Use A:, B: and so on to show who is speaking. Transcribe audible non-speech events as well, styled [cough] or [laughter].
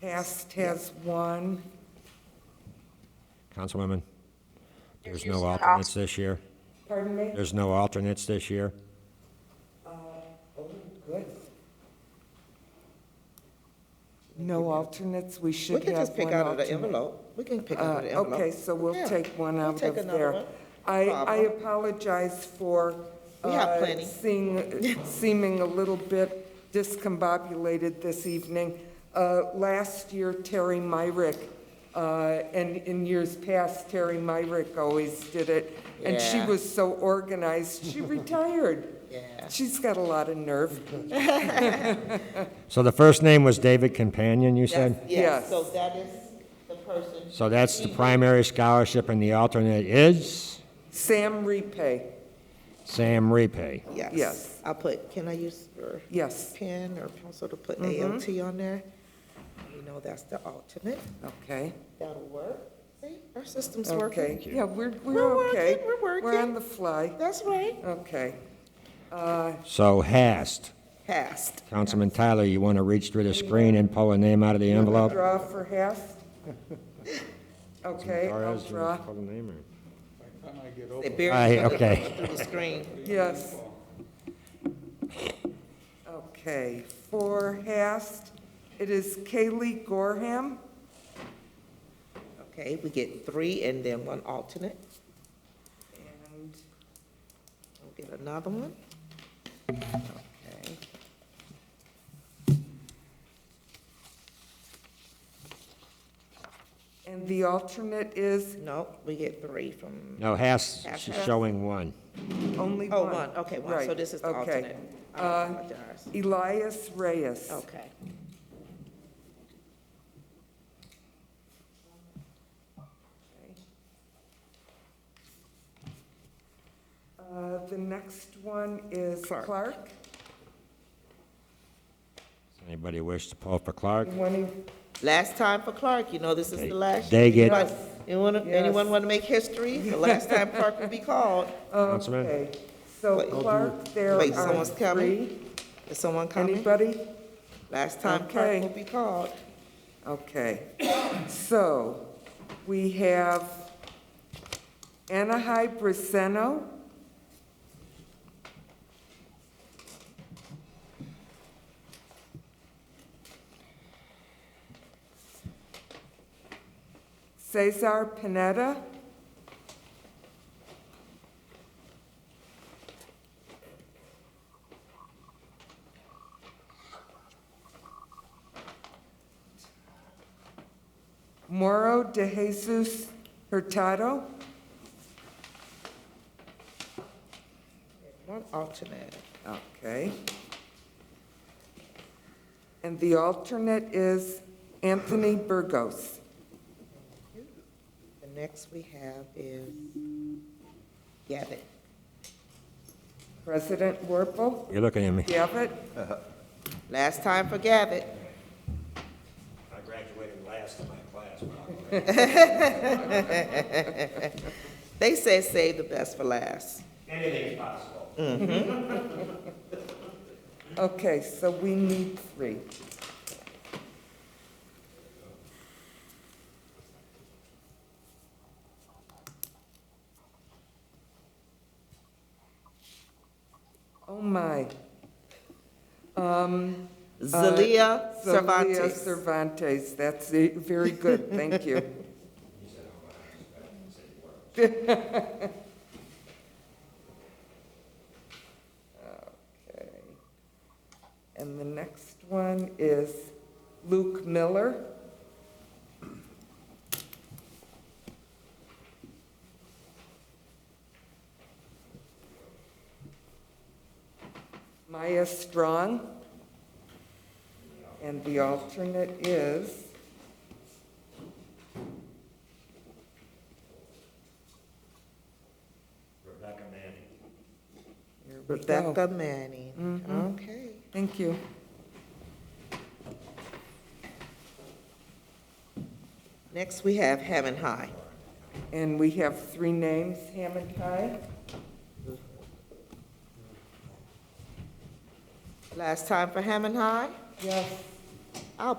A: Passed has one.
B: Councilwoman, there's no alternates this year?
A: Pardon me?
B: There's no alternates this year?
A: Good. No alternates, we
C: We
A: should
C: can
A: have
C: just pick
A: one
C: out of the
A: alternate.
C: envelope. We can pick out
A: Uh,
C: of the envelope.
A: Okay, so we'll
C: Yeah.
A: take one
C: We'll
A: out
C: take
A: of
C: another
A: there.
C: one.
A: I, I
C: Problem.
A: apologize for.
C: We have
A: uh,
C: plenty. [laughs]
A: Seeing, seeming a little bit discombobulated this evening. Uh, Last year, Terry Myrick, uh, and in years past, Terry Myrick always did it. And she
C: Yeah.
A: was so organized,
C: [laughs]
A: she retired.
C: Yeah.
A: She's got a lot of nerve.
B: So the first name was David Companion, you
C: That's-
B: said?
A: Yes.
C: Yes, so that is the person.
B: So that's the
C: He-
B: primary scholarship, and the alternate is
A: Sam Repay,
B: Sam Repay.
A: Yes.
C: Yes. I'll put, can I use your
A: yes, Mm-hmm.
C: pen or pencil to put ALT on there? You know, that's the alternate.
A: okay.
C: That'll work. See, our system's
A: Okay,
C: working.
A: yeah, we're, we're
C: We're
A: okay.
C: working, we're
A: We're on
C: working.
A: the fly,
C: That's right.
A: okay.
B: So Hast.
C: Passed.
B: Councilman Tyler, you want to reach through the screen and pull a name out of the envelope?
A: Draw for
B: [laughs]
A: half? Okay, I'll
B: Torres, you wanna
A: draw,
B: pull a name or-
C: They buried
B: Aye,
C: under-
B: okay.
C: through the screen.
A: yes. Okay, for Hast, it is Kaylee Gorham.
C: Okay, we get three and then one alternate.
A: And
C: We'll get another one. Okay.
A: and the alternate is
C: No, we get three from,
B: No, Hast,
C: Hast.
B: she's showing one.
A: only
C: oh,
A: one.
C: one, okay, one, so
A: Right,
C: this is the
A: okay.
C: alternate. I
A: Uh,
C: apologize.
A: Elias Reyes.
C: Okay.
A: Uh, The next one is
C: Clark.
A: Clark.
B: Does Anybody wish to pull for Clark?
A: You wanna-
C: Last time for Clark, you know this is the last.
B: They
C: year.
B: get-
C: Anyone, anyone want to make history? The last time Clark
A: [laughs]
C: will be called.
B: Councilman?
A: Okay, so
C: Wait.
A: Clark, there
C: Wait,
A: are
C: someone's coming?
A: three.
C: Is someone coming?
A: Anybody?
C: Last time
A: Okay.
C: Clark will be called.
A: Okay, so we have Anahai Briseno. Cesar Pineda. Moro de Jesus Hurtado.
C: One alternate.
A: Okay. And the alternate is Anthony Burgos.
C: The next we have is Gavitt.
A: President Werpel,
B: You're looking at me.
A: Gavitt,
C: Last time for Gavitt.
B: I graduated last in my class.
C: They say save the best for last.
B: Anything's possible.
A: Okay, so we need three. Oh, my. Um,
C: Zelia
A: Zelia
C: Cervantes.
A: Cervantes, that's it. very good, thank you. Okay. And the next one is Luke Miller. Maya Strong. And the alternate is? Rebecca Manning. Rebecca,
C: Rebecca Manning.
A: Mm-hmm.
C: Okay.
A: thank you.
C: Next we have Hammond High.
A: And we have three names, Hammond High.
C: Last time for Hammond High.
A: Yes.